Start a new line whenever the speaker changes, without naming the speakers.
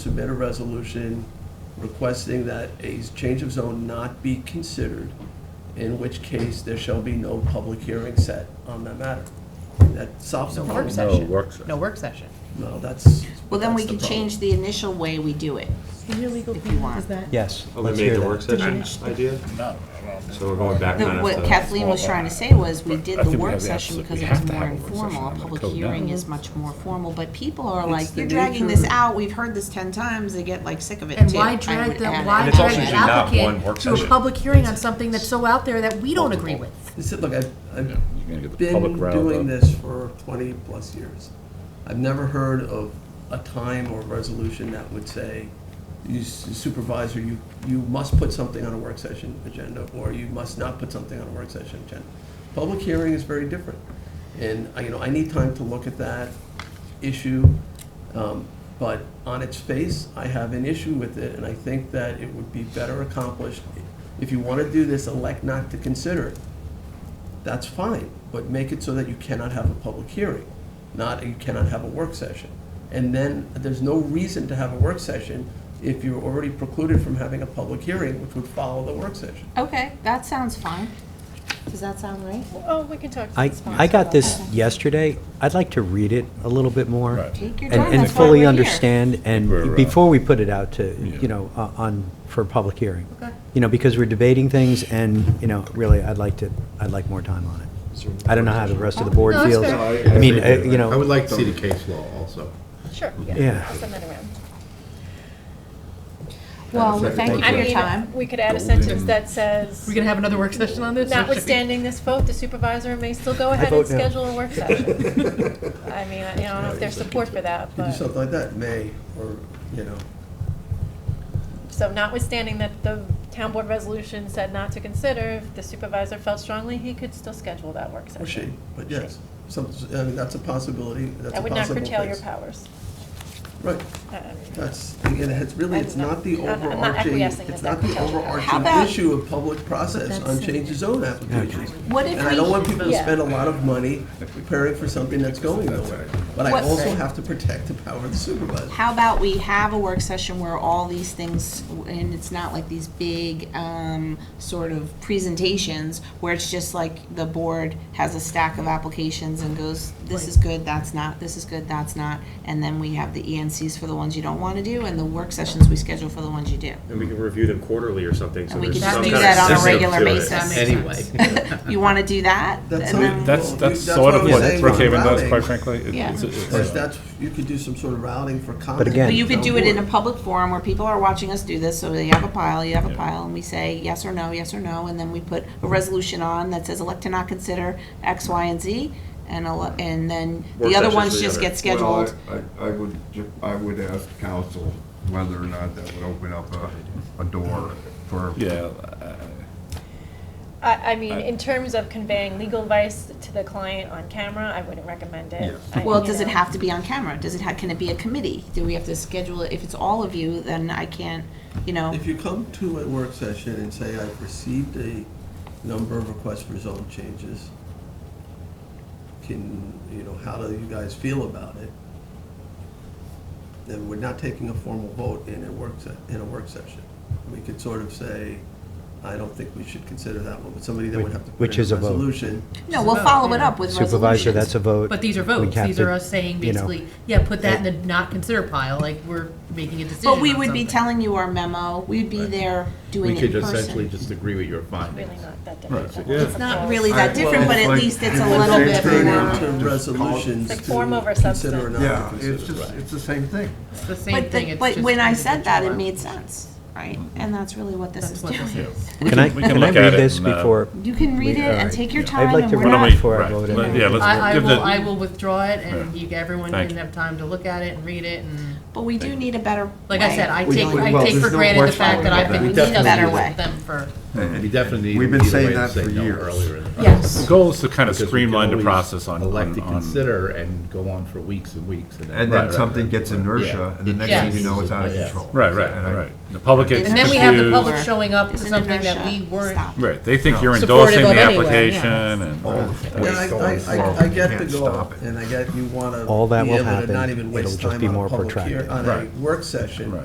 submit a resolution requesting that a change of zone not be considered, in which case there shall be no public hearing set on that matter. That solves the
No work
problem.
session.
work session.
No work session.
No, that's.
Well, then we
that's
can
the problem.
change the initial way we do it.
Your legal
If you
opinion
want.
is that?
Yes.
Oh,
Oh,
let's
Eliminate
hear
the
that.
work session idea? So we're going back
The-
kind of
What
to-
Kathleen was trying to say was, we did
I
the
think we
work
have the
session
absolute-
because
we
it
have
was
to
more
have a work session
informal. A
under the
public
code now.
hearing is much more formal, but people are
It's
like,
the
you're dragging
nature
this
of-
out, we've heard this ten times, they get like sick of it too.
And why
I
drag
would
the,
add
why
it.
it's
drag
also
an
usually not one
applicant
work
to a
session.
public hearing on something that's so out there that we don't agree with?
It's like I've, I've
You're gonna get the
been
public round
doing
up.
this for twenty plus years. I've never heard of a time or resolution that would say, you s- supervisor, you, you must put something on a work session agenda, or you must not put something on a work session agenda. Public hearing is very different, and, I- you know, I need time to look at that issue, um, but on its face, I have an issue with it, and I think that it would be better accomplished, if you want to do this, elect not to consider it that's fine, but make it so that you cannot have a public hearing, not, you cannot have a work session. And then, there's no reason to have a work session if you're already precluded from having a public hearing, which would follow the work session.
Okay, that sounds fine. Does that sound right?
Oh, we can talk.
I, I got this yesterday. I'd like to read it a little bit more.
Right.
Take your time, that's
and-
why we're
And fully
here.
understand,
We're,
and
uh,
before we put it out to,
Yeah.
you know, uh, on, for public hearing. You know, because we're debating things, and, you know, really, I'd like to, I'd like more time on it. I don't know how the rest of
Oh,
the board
No, that's
feels.
fair.
I mean, uh, you know.
I would like to see the case law also.
Sure,
Yeah.
yeah, I'll send that around.
Well, we thank you
Take
for
I
your
your
time.
mean, we could add a
Golden.
sentence that says,
We're gonna have another work session on this?
notwithstanding this vote, the supervisor may still go ahead and
vote no.
schedule a work session. I mean, I you know, I don't know if there's support for that,
You do
but,
something like that, may, or, you know,
so notwithstanding that the town board resolution said not to consider, if the supervisor felt strongly, he could still schedule that work
or she,
session.
but yes. Some, I mean, that's a possibility, that's
That
a
would not
possible
curtail your
place.
powers.
Right,
I- I mean,
that's, again, it's really,
I'm
it's not
not-
the
I'm- I'm not
overarching,
acquiescing that
it's not
that
the
tells you how.
How
overarching
about-
issue of public process on change of zone applications.
What if
And I don't want
we,
people to
Yeah.
spend a lot of money preparing for something that's going nowhere. But I
What's-
also have to protect the power of the supervisor.
how about we have a work session where all these things, and it's not like these big, um, sort of presentations, where it's just like the board has a stack of applications and goes, this is good, that's not, this is good, that's not, and then we have the ENCs for the ones you don't wanna do, and the work sessions we schedule for the ones you do.
And we can review them quarterly or something, so
And we
there's
can
some
just do
kind of
that on a
system
regular
to it.
basis.
Anyway.
You wanna do that?
That's
And
how-
then-
That's,
Well,
that's
that's
sort
what
of
I'm
what
saying,
Brookhaven does,
routing.
quite frankly. It-
Yeah.
it's- it's-
That's, that's, you could do some sort of routing for comment.
again-
But you could do it in a
Board.
public forum where people are watching us do this, so they have a pile, you have a pile, and we say yes or no, yes or no, and then we put a resolution on that says elect to not consider X, Y, and Z, and, ele- and then
Work
the other
sessions
ones
for the
just
other.
get scheduled.
Well, I- I, I would, ju- I would ask council whether or not that would open up a, a door for
Yeah, uh,
I, I mean, in terms of conveying legal advice to the client on camera, I wouldn't recommend it. I-
Well,
you
does it
know.
have to be on camera? Does it, ha- can it be a committee? Do we have to schedule it? If it's all of you, then I can't, you know,
If you come to a work session and say, I've received a number of requests for zone changes, can, you know, how do you guys feel about it? Then we're not taking a formal vote in a work, se- in a work session. We could sort of say, I don't think we should consider that one, but somebody then would have to put
Which
in
is
a
a vote.
resolution.
no, we'll follow it up with resolutions.
Supervisor, that's a vote.
But these are
We
votes,
have
these
to,
are us saying
you know,
basically, yeah, put that in the not consider pile, like we're making a decision
But we
on
would be
something.
telling you our memo, we'd be there doing it in person.
just agree with your findings.
Really not that different.
It's not really that
I-
different, but at
well,
least it's a
it's
little
like-
bit
Turn
more.
Just
into
call-
resolutions
Like
to
form over
consider or
substance.
not
Yeah,
to
it's
consider.
just, it's the same thing.
It's the same
But,
thing,
the-
it's
but
just
when I said that, it
individual.
made sense, right? And that's really what this is
That's what this
doing.
is.
we
Can I,
we can
can I
look at
read
it
this
and, uh,
before?
You can read it and
alright,
take your time
I'd like
and
to
we're
read it
not,
before I
Right.
vote. in.
Let- Yeah,
I,
let's
I
give
will, I
the,
will withdraw it and you, everyone
Thank
can
you.
have time to look at it and read it and,
but we do need a better way.
like I said, I
We
take,
don't-
I
well,
take for
there's no
granted the
question
fact that
about
I've
that.
been,
We
we need us
definitely-
to
Better way.
use them for.
We
definitely
We've been
need a
saying
way to
that
say
for
no
years.
earlier in the
Yes.
the goal is to kind of
Because we can
streamline the
always
process on,
Elect
on,
to
on,
consider and go on for weeks and weeks.
And
Right,
then
right,
something
right.
gets inertia, and the next
Yes.
thing you know, it's out of
Yes.
control.
right, right,
And I-
right. The public gets
And then we have the public
Confused.
showing up to
It's an
something that
inertia.
we weren't,
Stop.
Right, they think you're
Supportive
endorsing
of
the
anyway, yeah.
application and.
All the
Yeah,
waste going
I- I,
forward,
I, I get the
can't
goal,
stop it.
and I get you wanna
All that
be
will
able to
happen.
not even
It'll
waste
just
time
be
on a
more
public hear,
protracted.
on a work session.